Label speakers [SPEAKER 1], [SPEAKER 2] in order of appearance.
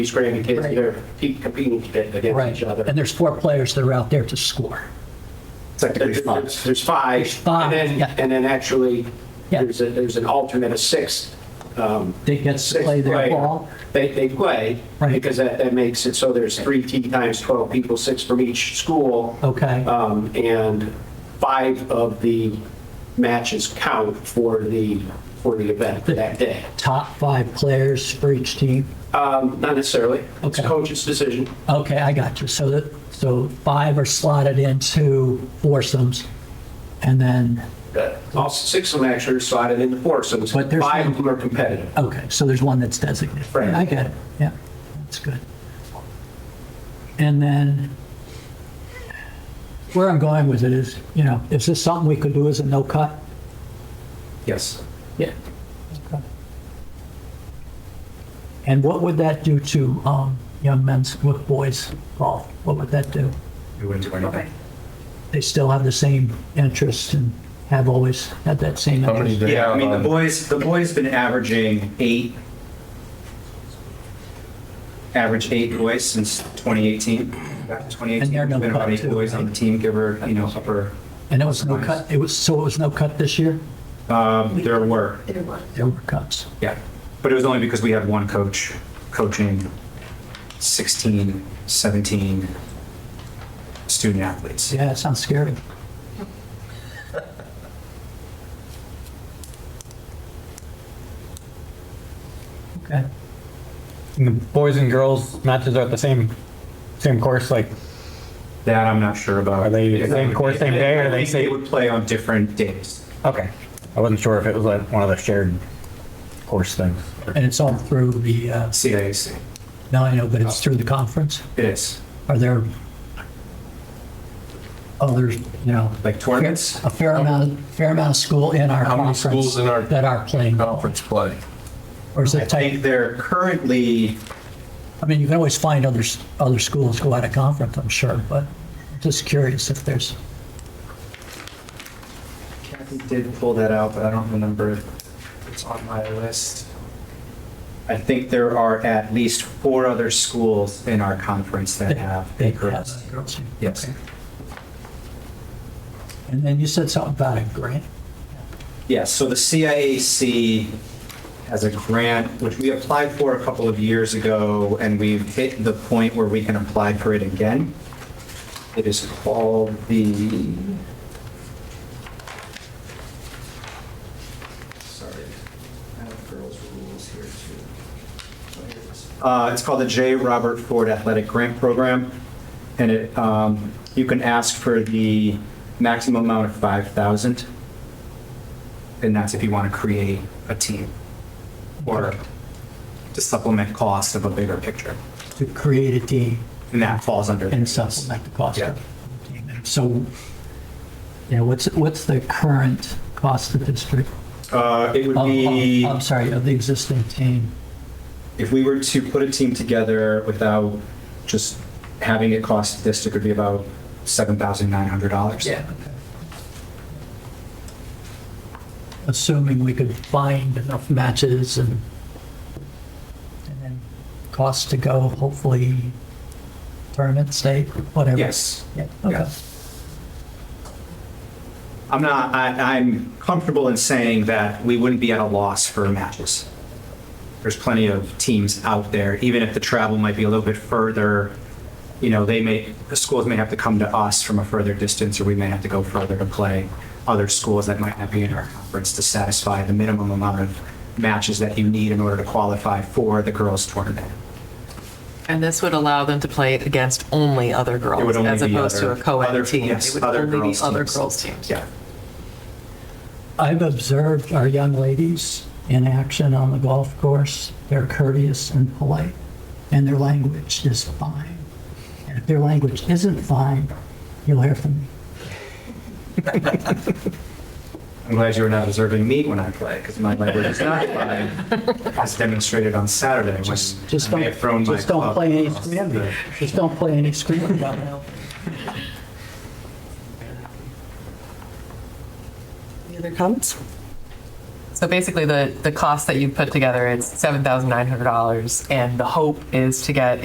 [SPEAKER 1] these grand kids, they're pe- competing against
[SPEAKER 2] Right.
[SPEAKER 1] each other.
[SPEAKER 2] And there's four players that are out there to score.
[SPEAKER 3] Technically
[SPEAKER 1] There's-
[SPEAKER 3] five.
[SPEAKER 1] There's there's five.
[SPEAKER 2] There's five,
[SPEAKER 1] And
[SPEAKER 2] yeah.
[SPEAKER 1] then, and then actually,
[SPEAKER 2] Yeah.
[SPEAKER 1] there's, a- there's an alternate, a sixth. um,
[SPEAKER 2] They get to
[SPEAKER 1] sixth
[SPEAKER 2] play their
[SPEAKER 1] player.
[SPEAKER 2] ball.
[SPEAKER 1] They, they play,
[SPEAKER 2] Right.
[SPEAKER 1] because that, that makes it so there's three T times 12 people, six from each school.
[SPEAKER 2] Okay.
[SPEAKER 1] Um, And five of the matches count for the, for the event that day.
[SPEAKER 2] Top five players for each team.
[SPEAKER 1] Um, Not necessarily. It's
[SPEAKER 2] Okay.
[SPEAKER 1] coach's decision.
[SPEAKER 2] Okay, I got you. So that, so five are slotted into foursomes. And then,
[SPEAKER 1] Uh, All six of them actually are slotted into foursomes.
[SPEAKER 2] But there's
[SPEAKER 1] Five
[SPEAKER 2] no-
[SPEAKER 1] of them are competitive.
[SPEAKER 2] okay, so there's one that's designated.
[SPEAKER 1] Right.
[SPEAKER 2] I get it. Yeah, that's good. And then where I'm going with it is, you know, is this something we could do as a no cut?
[SPEAKER 3] Yes.
[SPEAKER 2] Yeah. And what would that do to um, young men's, with boys golf? What would that do?
[SPEAKER 3] It wouldn't do anything.
[SPEAKER 2] They still have the same interest and have always had that same
[SPEAKER 4] How many
[SPEAKER 2] interest.
[SPEAKER 4] do you
[SPEAKER 3] Yeah, I
[SPEAKER 4] have
[SPEAKER 3] mean, the
[SPEAKER 5] Um,
[SPEAKER 4] on-
[SPEAKER 3] boys, the boys been averaging eight, average eight boys since 2018. Back to 2018.
[SPEAKER 2] And they're no
[SPEAKER 3] Been about
[SPEAKER 2] cut
[SPEAKER 3] eight
[SPEAKER 2] too,
[SPEAKER 3] boys on
[SPEAKER 2] right?
[SPEAKER 3] the team, give or, you know, upper,
[SPEAKER 2] And it was no cut, it was, so it was no cut this year?
[SPEAKER 3] um, there were,
[SPEAKER 6] There was.
[SPEAKER 2] There were cuts.
[SPEAKER 3] yeah. But it was only because we had one coach coaching 16, 17 student athletes.
[SPEAKER 2] Yeah, it sounds scary. Okay.
[SPEAKER 5] And the boys and girls matches are at the same same course. Like,
[SPEAKER 3] That I'm not sure about.
[SPEAKER 5] Are they the same course, same day, or are they
[SPEAKER 3] They
[SPEAKER 5] same-
[SPEAKER 3] would play on different days.
[SPEAKER 5] okay, I wasn't sure if it was like one of the shared course things.
[SPEAKER 2] And it's all through the, uh,
[SPEAKER 3] CIAC.
[SPEAKER 2] now I know, but it's through the conference?
[SPEAKER 3] It is.
[SPEAKER 2] Are there others, you know,
[SPEAKER 3] Like tournaments?
[SPEAKER 2] a fair amount, fair amount of school in our
[SPEAKER 4] How many
[SPEAKER 2] conference?
[SPEAKER 4] schools in our- Oh.
[SPEAKER 2] That are playing,
[SPEAKER 4] Conference play.
[SPEAKER 2] or is
[SPEAKER 3] I
[SPEAKER 2] it
[SPEAKER 3] think
[SPEAKER 2] tight?
[SPEAKER 3] they're currently,
[SPEAKER 2] I mean, you can always find other, s- other schools go out of conference, I'm sure, but just curious if there's,
[SPEAKER 3] Kathy did pull that out, but I don't remember if it's on my list. I think there are at least four other schools in our conference that have
[SPEAKER 2] they
[SPEAKER 3] a
[SPEAKER 2] have
[SPEAKER 3] girls.
[SPEAKER 2] girls.
[SPEAKER 3] Yes.
[SPEAKER 2] And then you said something about a grant.
[SPEAKER 3] Yes, so the CIAC has a grant, which we applied for a couple of years ago, and we've hit the point where we can apply for it again. It is called the... Sorry, I have girls' rules here too. Uh, It's called the J. Robert Ford Athletic Grant Program, and it, um, you can ask for the maximum amount of 5,000 and that's if you want to create a team or to supplement cost of a bigger picture.
[SPEAKER 2] to create a team
[SPEAKER 3] And that falls under.
[SPEAKER 2] and supplement the cost of
[SPEAKER 3] Yeah.
[SPEAKER 2] the team. So, yeah, what's, what's the current cost of this? for-
[SPEAKER 3] Uh, it would
[SPEAKER 2] of-
[SPEAKER 3] be,
[SPEAKER 2] of- I'm sorry, of the existing team?
[SPEAKER 3] if we were to put a team together without just having it cost this, it could be about $7,900.
[SPEAKER 2] Assuming we could find enough matches and, and then cost to go, hopefully tournament, state, whatever.
[SPEAKER 3] Yes.
[SPEAKER 2] Yeah, okay.
[SPEAKER 3] Yes. I'm not, I, I'm comfortable in saying that we wouldn't be at a loss for matches. There's plenty of teams out there, even if the travel might be a little bit further, you know, they may, the schools may have to come to us from a further distance, or we may have to go further to play other schools that might not be in our conference to satisfy the minimum amount of matches that you need in order to qualify for the girls tournament.
[SPEAKER 7] And this would allow them to play it against only other
[SPEAKER 3] It would
[SPEAKER 7] girls
[SPEAKER 3] only
[SPEAKER 7] as
[SPEAKER 3] be
[SPEAKER 7] opposed to a
[SPEAKER 3] other- other-
[SPEAKER 7] co-ed team.
[SPEAKER 3] yes,
[SPEAKER 7] It would
[SPEAKER 3] other
[SPEAKER 7] only be
[SPEAKER 3] girls'
[SPEAKER 7] other
[SPEAKER 3] teams.
[SPEAKER 7] girls' teams.
[SPEAKER 3] Yeah.
[SPEAKER 2] I've observed our young ladies in action on the golf course. They're courteous and polite, and their language is fine. And if their language isn't fine, you'll hear from me.
[SPEAKER 3] I'm glad you were not observing me when I play, because my language is not fine, as demonstrated on Saturday when
[SPEAKER 2] Just, just
[SPEAKER 3] I may have thrown
[SPEAKER 2] don't,
[SPEAKER 3] my
[SPEAKER 2] just don't
[SPEAKER 3] club
[SPEAKER 2] play any
[SPEAKER 3] across
[SPEAKER 2] screaming.
[SPEAKER 3] the-
[SPEAKER 2] Just don't play any screaming. Bob.
[SPEAKER 7] Any other comments? So basically, the, the cost that you put together is $7,900, and the hope is to get